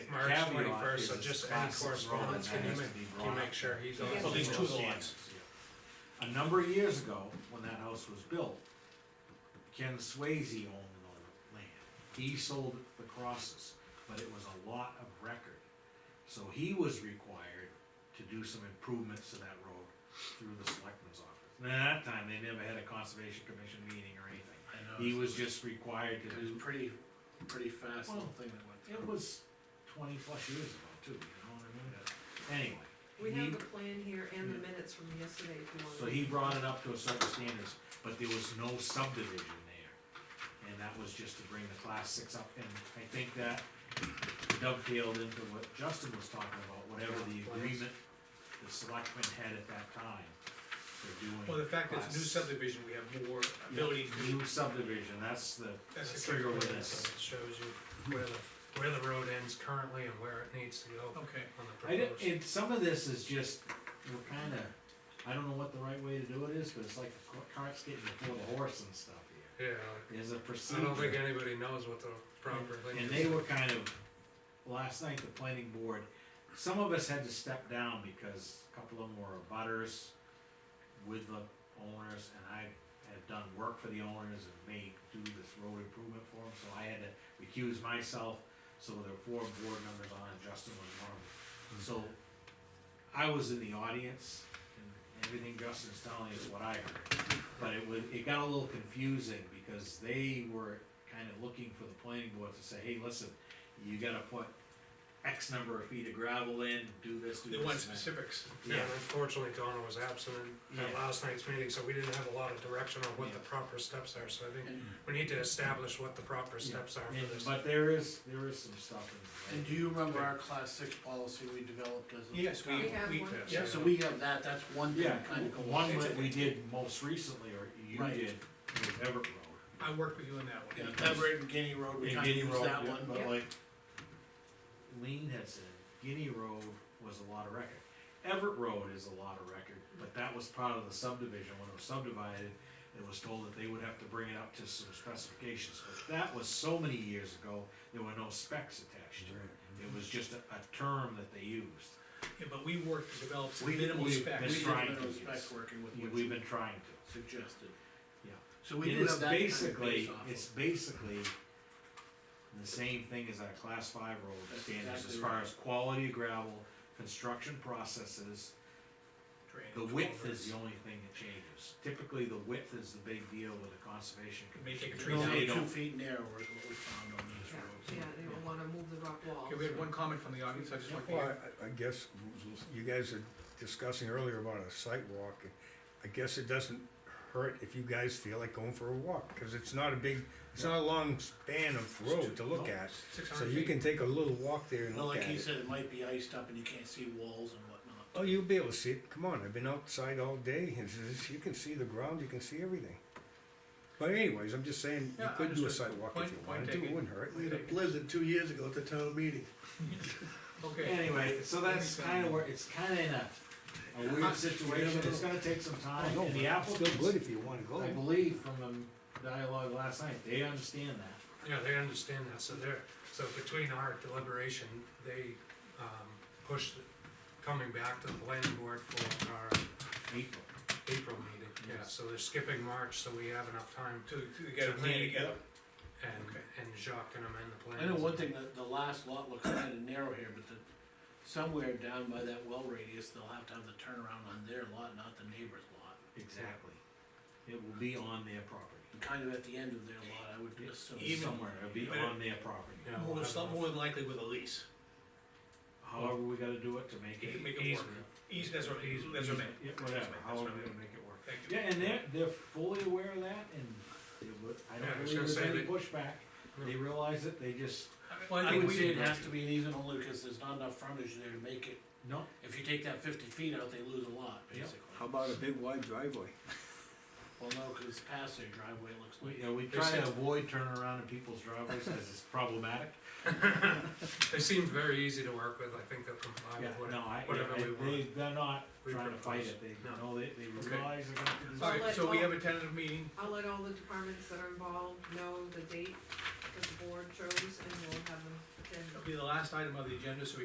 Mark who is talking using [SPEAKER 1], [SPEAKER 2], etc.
[SPEAKER 1] March
[SPEAKER 2] Caveat
[SPEAKER 1] twenty-first, so
[SPEAKER 2] is
[SPEAKER 1] just any
[SPEAKER 2] classic Roman
[SPEAKER 1] correspondence, can you
[SPEAKER 2] has to
[SPEAKER 1] make,
[SPEAKER 2] be
[SPEAKER 1] can you
[SPEAKER 2] brought
[SPEAKER 1] make sure he's on?
[SPEAKER 3] Yeah.
[SPEAKER 2] So these two are the ones. A number of years ago, when that house was built, Ken Swayze owned the land. He sold the crosses, but it was a lot of record. So he was required to do some improvements to that road through the selectman's office. And at that time, they never had a conservation commission meeting or anything.
[SPEAKER 3] I know.
[SPEAKER 2] He was just required to
[SPEAKER 3] It
[SPEAKER 2] do
[SPEAKER 3] was pretty, pretty fast, the
[SPEAKER 2] Well,
[SPEAKER 3] whole thing that went through.
[SPEAKER 2] It was twenty plus years ago too, you know what I mean? Anyway.
[SPEAKER 4] We
[SPEAKER 2] he-
[SPEAKER 4] have the plan here and the minutes from yesterday if you want.
[SPEAKER 2] So he brought it up to a certain standards, but there was no subdivision there. And that was just to bring the class six up, and I think that dovetailed into what Justin was talking about, whatever the agreement the selectmen had at that time for doing.
[SPEAKER 1] Well, the fact that it's new
[SPEAKER 2] class-
[SPEAKER 1] subdivision, we have more ability to do.
[SPEAKER 2] New subdivision, that's the,
[SPEAKER 1] That's the
[SPEAKER 2] trigger with Mm-hmm.
[SPEAKER 1] calculation,
[SPEAKER 2] this.
[SPEAKER 1] so It shows you where the, where the road ends currently and where it needs to go on
[SPEAKER 3] Okay,
[SPEAKER 1] the
[SPEAKER 2] I don't,
[SPEAKER 1] proposed.
[SPEAKER 2] it, some of this is just, we're kinda, I don't know what the right way to do it is, but it's like the cart- cart's getting before the horse and stuff here.
[SPEAKER 1] Yeah,
[SPEAKER 2] There's a
[SPEAKER 1] I don't think
[SPEAKER 2] procedure,
[SPEAKER 1] anybody knows what the proper thing
[SPEAKER 2] Mm-hmm. and
[SPEAKER 1] is.
[SPEAKER 2] they were kind of, last night, the planning board, some of us had to step down because a couple of them were butters with the owners, and I had done work for the owners and made, do this road improvement for them, so I had to recuse myself, so there were four board members on, and Justin was one of them. So, I was in the audience, and everything Justin's telling you is what I heard, but it was, it got a little confusing, because they were kinda looking for the planning board to say, hey, listen, you gotta put X number of feet of gravel in, do this, do
[SPEAKER 3] they
[SPEAKER 2] this.
[SPEAKER 3] want
[SPEAKER 2] and that."
[SPEAKER 3] specifics.
[SPEAKER 1] Yeah,
[SPEAKER 2] Yeah.
[SPEAKER 1] unfortunately Donna was absent at
[SPEAKER 2] Yeah.
[SPEAKER 1] last night's meeting, so we didn't have a lot of direction on what the
[SPEAKER 2] Yeah.
[SPEAKER 1] proper steps are, so I think we need to establish what the proper steps are
[SPEAKER 2] And-
[SPEAKER 1] for this.
[SPEAKER 2] But there is, there is some stuff in.
[SPEAKER 3] And do you remember our class six policy we developed as a?
[SPEAKER 1] Yes, we,
[SPEAKER 4] We have
[SPEAKER 1] we,
[SPEAKER 4] one.
[SPEAKER 1] yeah,
[SPEAKER 3] Yeah, so we have that, that's one thing
[SPEAKER 2] Yeah,
[SPEAKER 3] that kinda goes.
[SPEAKER 2] one that we did most recently, or you
[SPEAKER 3] Right.
[SPEAKER 2] did, was Everett Road.
[SPEAKER 3] I worked with you on that
[SPEAKER 2] one.
[SPEAKER 3] Yeah, that right in Guinea Road, we
[SPEAKER 2] And
[SPEAKER 3] kinda
[SPEAKER 2] Guinea
[SPEAKER 3] used
[SPEAKER 2] Road,
[SPEAKER 3] that
[SPEAKER 2] yeah,
[SPEAKER 3] one.
[SPEAKER 2] but
[SPEAKER 4] Yeah.
[SPEAKER 2] like, Lean had said, Guinea Road was a lot of record. Everett Road is a lot of record, but that was part of the subdivision, when it was subdivided, it was told that they would have to bring it up to some specifications, but that was so many years ago, there were no specs attached to it. It was just a, a term that they used.
[SPEAKER 5] Yeah, but we worked to develop some
[SPEAKER 2] We-
[SPEAKER 5] minimal
[SPEAKER 2] we-
[SPEAKER 3] We
[SPEAKER 2] That's
[SPEAKER 5] specs.
[SPEAKER 3] did
[SPEAKER 2] right,
[SPEAKER 3] minimum
[SPEAKER 2] yes.
[SPEAKER 3] spec working with
[SPEAKER 2] We-
[SPEAKER 3] what
[SPEAKER 2] We've
[SPEAKER 3] you
[SPEAKER 2] been trying to.
[SPEAKER 3] suggested.
[SPEAKER 2] Yeah.
[SPEAKER 3] So we
[SPEAKER 2] It
[SPEAKER 3] do
[SPEAKER 2] is
[SPEAKER 3] have that kind of
[SPEAKER 2] basically,
[SPEAKER 3] base off
[SPEAKER 2] it's
[SPEAKER 3] of.
[SPEAKER 2] basically the same thing as our class five road
[SPEAKER 3] That's
[SPEAKER 2] standards as
[SPEAKER 3] exactly
[SPEAKER 2] far
[SPEAKER 3] right.
[SPEAKER 2] as quality of gravel, construction processes. The
[SPEAKER 5] drainage
[SPEAKER 2] width
[SPEAKER 5] culverts.
[SPEAKER 2] is the only thing that changes. Typically, the width is the big deal with the conservation
[SPEAKER 5] They
[SPEAKER 2] commission.
[SPEAKER 5] take a
[SPEAKER 3] It's
[SPEAKER 5] tree
[SPEAKER 2] They
[SPEAKER 3] only
[SPEAKER 5] down.
[SPEAKER 3] Two
[SPEAKER 2] don't-
[SPEAKER 3] feet narrow is what we found on these roads.
[SPEAKER 4] Yeah, they don't wanna move the rock wall.
[SPEAKER 5] Okay, we had one comment from the audience, I just want to
[SPEAKER 6] Well,
[SPEAKER 5] hear.
[SPEAKER 6] I, I guess you guys are discussing earlier about a site walk. I guess it doesn't hurt if you guys feel like going for a walk, cause it's not a big, it's not a long span of road to look at. So
[SPEAKER 5] 600
[SPEAKER 6] you
[SPEAKER 5] feet.
[SPEAKER 6] can take a little walk there and
[SPEAKER 3] Well,
[SPEAKER 6] look
[SPEAKER 3] like
[SPEAKER 6] at
[SPEAKER 3] he
[SPEAKER 6] it.
[SPEAKER 3] said, it might be iced up and you can't see walls and whatnot.
[SPEAKER 6] Oh, you'll be able to see it. Come on, I've been outside all day. It's, it's, you can see the ground, you can see everything. But anyways, I'm just saying, you
[SPEAKER 5] Yeah,
[SPEAKER 6] could do a
[SPEAKER 5] understood.
[SPEAKER 6] site walk
[SPEAKER 5] Point-
[SPEAKER 6] if you
[SPEAKER 5] point
[SPEAKER 6] wanted to, it
[SPEAKER 5] taken.
[SPEAKER 6] wouldn't hurt.
[SPEAKER 7] We had a blizzard two years ago at the town meeting.
[SPEAKER 5] Okay,
[SPEAKER 2] Anyway, so that's kinda where, it's kinda in a, a weird situation. It's gonna take some time
[SPEAKER 6] Oh, No,
[SPEAKER 2] and the
[SPEAKER 6] it's Still good
[SPEAKER 2] applicants,
[SPEAKER 6] if you wanna go.
[SPEAKER 2] I believe from the dialogue last night, they understand that.
[SPEAKER 1] yeah, they understand that, so they're, so between our deliberation, they, um, pushed it coming back to the planning board for our
[SPEAKER 2] April.
[SPEAKER 1] April meeting, yeah,
[SPEAKER 2] Yes.
[SPEAKER 1] so they're skipping March, so we have enough time
[SPEAKER 5] to, to get a plan together.
[SPEAKER 1] to, and, and Jacques can amend the
[SPEAKER 3] I
[SPEAKER 1] plans.
[SPEAKER 3] know one thing, that the last lot looks kinda narrow here, but the, somewhere down by that well radius, they'll have to have the turnaround on their lot, not the neighbor's lot.
[SPEAKER 2] Exactly. It will be on their property.
[SPEAKER 3] And Kind of at the end of their lot, I would assume.
[SPEAKER 5] Even-
[SPEAKER 2] somewhere, it'll be
[SPEAKER 5] but it-
[SPEAKER 2] on their property.
[SPEAKER 1] Yeah, we'll
[SPEAKER 5] More,
[SPEAKER 1] have
[SPEAKER 5] some,
[SPEAKER 1] enough
[SPEAKER 5] more than likely with a lease.
[SPEAKER 2] However, we gotta do it to make
[SPEAKER 5] You
[SPEAKER 2] it.
[SPEAKER 5] can make it work.
[SPEAKER 1] easement.
[SPEAKER 5] Eas, that's what, eas, that's what I meant.
[SPEAKER 2] Yeah, whatever,
[SPEAKER 5] That's
[SPEAKER 2] however
[SPEAKER 5] what I
[SPEAKER 2] we
[SPEAKER 5] meant.
[SPEAKER 2] gonna make it work.
[SPEAKER 5] Thank you.
[SPEAKER 2] Yeah, and they're, they're fully aware of that and they would, I
[SPEAKER 1] Yeah, I
[SPEAKER 2] don't
[SPEAKER 1] was
[SPEAKER 2] believe
[SPEAKER 1] gonna
[SPEAKER 2] there's
[SPEAKER 1] say
[SPEAKER 2] any
[SPEAKER 1] they-
[SPEAKER 2] pushback. They realize it, they just,
[SPEAKER 5] Well,
[SPEAKER 3] I
[SPEAKER 5] think
[SPEAKER 3] would
[SPEAKER 5] we
[SPEAKER 3] say it
[SPEAKER 5] did-
[SPEAKER 3] has to be an easement only because there's not enough frontage there to make it,
[SPEAKER 2] no,
[SPEAKER 3] if you take that fifty feet out, they lose a lot,
[SPEAKER 2] Yep.
[SPEAKER 3] basically.
[SPEAKER 6] about a big wide driveway?
[SPEAKER 3] Well, no, cause it's past their driveway, it looks
[SPEAKER 2] we,
[SPEAKER 3] like.
[SPEAKER 2] you know, we
[SPEAKER 1] They
[SPEAKER 2] try
[SPEAKER 1] said-
[SPEAKER 2] to avoid turning around in people's driveways because it's problematic.
[SPEAKER 1] They seemed very easy to work with, I think they'll comply
[SPEAKER 2] Yeah,
[SPEAKER 1] with
[SPEAKER 2] no,
[SPEAKER 1] whatever,
[SPEAKER 2] I,
[SPEAKER 1] whatever
[SPEAKER 2] I-
[SPEAKER 1] we
[SPEAKER 2] they,
[SPEAKER 1] want.
[SPEAKER 2] they're not
[SPEAKER 1] We
[SPEAKER 2] trying to fight
[SPEAKER 1] propose.
[SPEAKER 2] it, they,
[SPEAKER 1] No.
[SPEAKER 2] know, they, they
[SPEAKER 1] Okay.
[SPEAKER 2] realize they're gonna do this.
[SPEAKER 5] Alright, so we have a tentative meeting,
[SPEAKER 4] I'll let all the departments that are involved know the date
[SPEAKER 8] that the board chose, and we'll have them attend.
[SPEAKER 4] It'll be the last item of the agenda, so we